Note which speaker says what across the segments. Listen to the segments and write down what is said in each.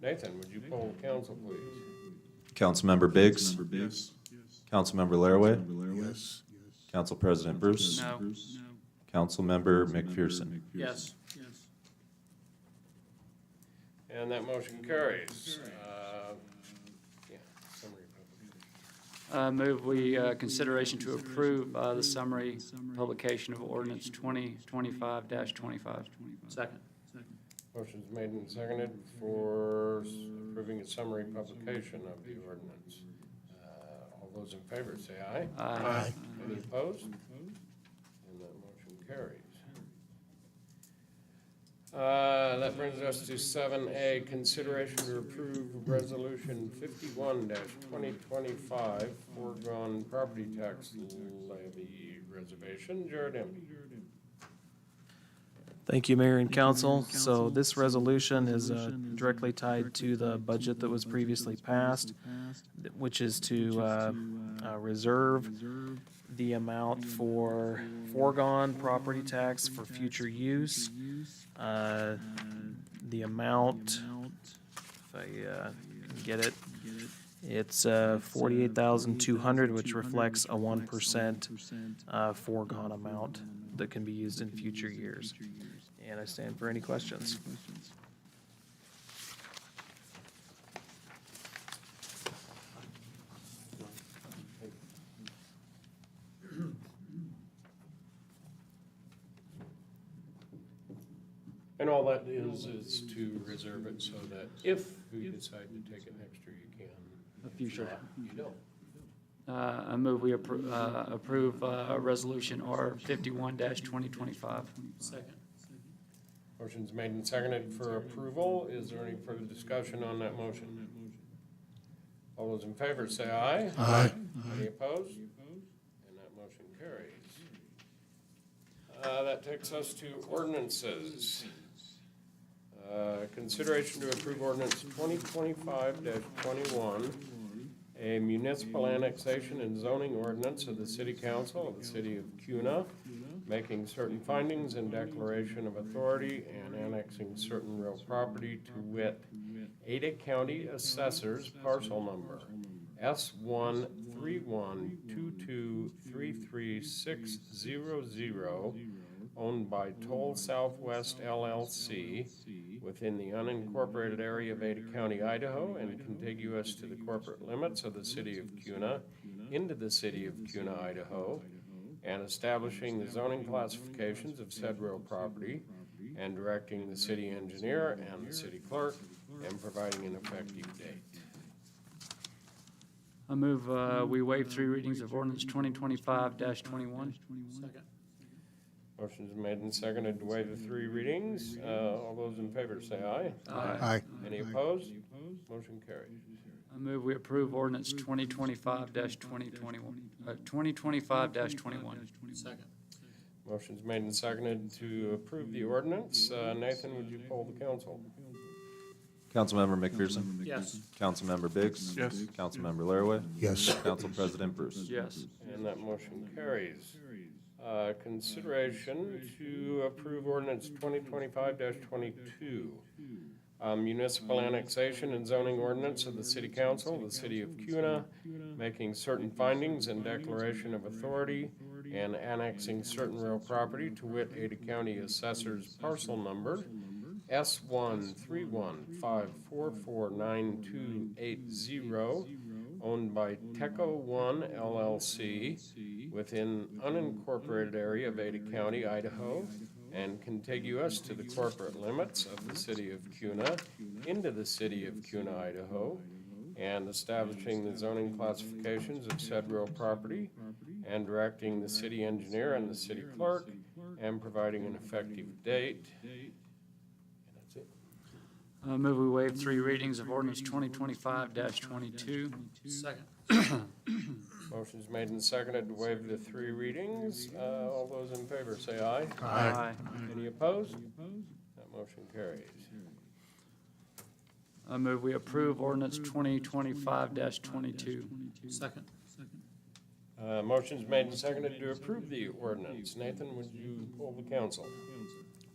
Speaker 1: Nathan, would you poll council, please?
Speaker 2: Councilmember Biggs,
Speaker 3: Councilmember Biggs.
Speaker 2: Councilmember Laraway,
Speaker 3: Councilmember Laraway. Yes.
Speaker 2: Council President Bruce,
Speaker 3: Councilmember
Speaker 4: No.
Speaker 3: Bruce.
Speaker 2: Councilmember
Speaker 3: Councilmember
Speaker 2: McPherson.
Speaker 4: Yes, yes.
Speaker 1: And that motion carries. Uh, yeah, summary publication.
Speaker 4: Uh, Move we, uh, consideration to approve uh, the summary publication of ordinance 2025-25. Second.
Speaker 1: Motion's made and seconded for s- approving a summary publication of the ordinance. Uh, All those in favor, say aye.
Speaker 4: Aye.
Speaker 1: Any opposed? And that motion carries. Uh, That brings us to seven A, consideration to approve resolution fifty-one twenty twenty-five, foregone property tax levy reservation. Jared Emby.
Speaker 5: Thank you, Mayor and Council. So this resolution is uh, directly tied to the budget that was previously passed, th- which is to uh, uh, reserve the amount for foregone property tax for future use. Uh, The amount, if I uh, can get it, it's uh, forty-eight thousand two hundred, which reflects a one percent uh, foregone amount that can be used in future years. And I stand for any questions.
Speaker 1: And all that is, is to reserve it so that if you decide to take it next year, you can.
Speaker 4: A future.
Speaker 1: You don't.
Speaker 4: Uh, I move we appro- uh, approve uh, Resolution R 51-2025. Second.
Speaker 1: Motion's made and seconded for approval. Is there any further discussion on that motion? All those in favor say aye. Aye. Any opposed? And that motion carries. Uh, that takes us to ordinances. Uh, consideration to approve ordinance twenty twenty-five twenty-one, a municipal annexation and zoning ordinance of the city council of the city of Cuna, making certain findings and declaration of authority and annexing certain real property to wit, Ada County Assessor's parcel number S one three one two two three three six zero zero, owned by Toll Southwest LLC within the unincorporated area of Ada County, Idaho, and contiguous to the corporate limits of the city of Cuna, into the city of Cuna, Idaho, and establishing the zoning classifications of said real property, and directing the city engineer and the city clerk, and providing an effective date.
Speaker 4: I move uh, we waive three readings of ordinance 2025-21. Second.
Speaker 1: Motion's made and seconded to waive the three readings. Uh, All those in favor say aye.
Speaker 4: Aye.
Speaker 6: Aye.
Speaker 1: Any opposed? Motion carried.
Speaker 4: I move we approve ordinance 2025-2021, uh, 2025-21. Second.
Speaker 1: Motion's made and seconded to approve the ordinance. Uh, Nathan, would you poll the council?
Speaker 2: Councilmember McPherson.
Speaker 4: Yes.
Speaker 2: Councilmember Biggs.
Speaker 3: Yes.
Speaker 2: Councilmember Laraway,
Speaker 6: Yes.
Speaker 2: Council President Bruce.
Speaker 4: Yes.
Speaker 1: And that motion carries. Uh, Consideration to approve ordinance twenty twenty-five twenty-two. Uh, Municipal annexation and zoning ordinance of the city council, of the city of Cuna, making certain findings and declaration of authority and annexing certain real property to wit Ada County Assessor's parcel number S one three one five four four nine two eight zero owned by Teco One LLC within unincorporated area of Ada County, Idaho, and contiguous to the corporate limits of the city of Cuna into the city of Cuna, Idaho, and establishing the zoning classifications of said real property and directing the city engineer and the city clerk and providing an effective date. And that's it.
Speaker 4: I move we waive three readings of ordinance 2025-22. Second.
Speaker 1: Motion's made and seconded to waive the three readings. Uh, All those in favor, say aye.
Speaker 4: Aye.
Speaker 1: Any opposed? That motion carries.
Speaker 4: I move we approve ordinance 2025-22. Second.
Speaker 1: Uh, Motion's made and seconded to approve the ordinance. Nathan, would you poll the council?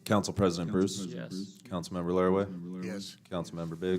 Speaker 2: Council President Bruce.
Speaker 4: Yes.
Speaker 2: Councilmember Laraway,
Speaker 3: Councilmember Laraway.
Speaker 6: Yes.
Speaker 2: Councilmember Biggs.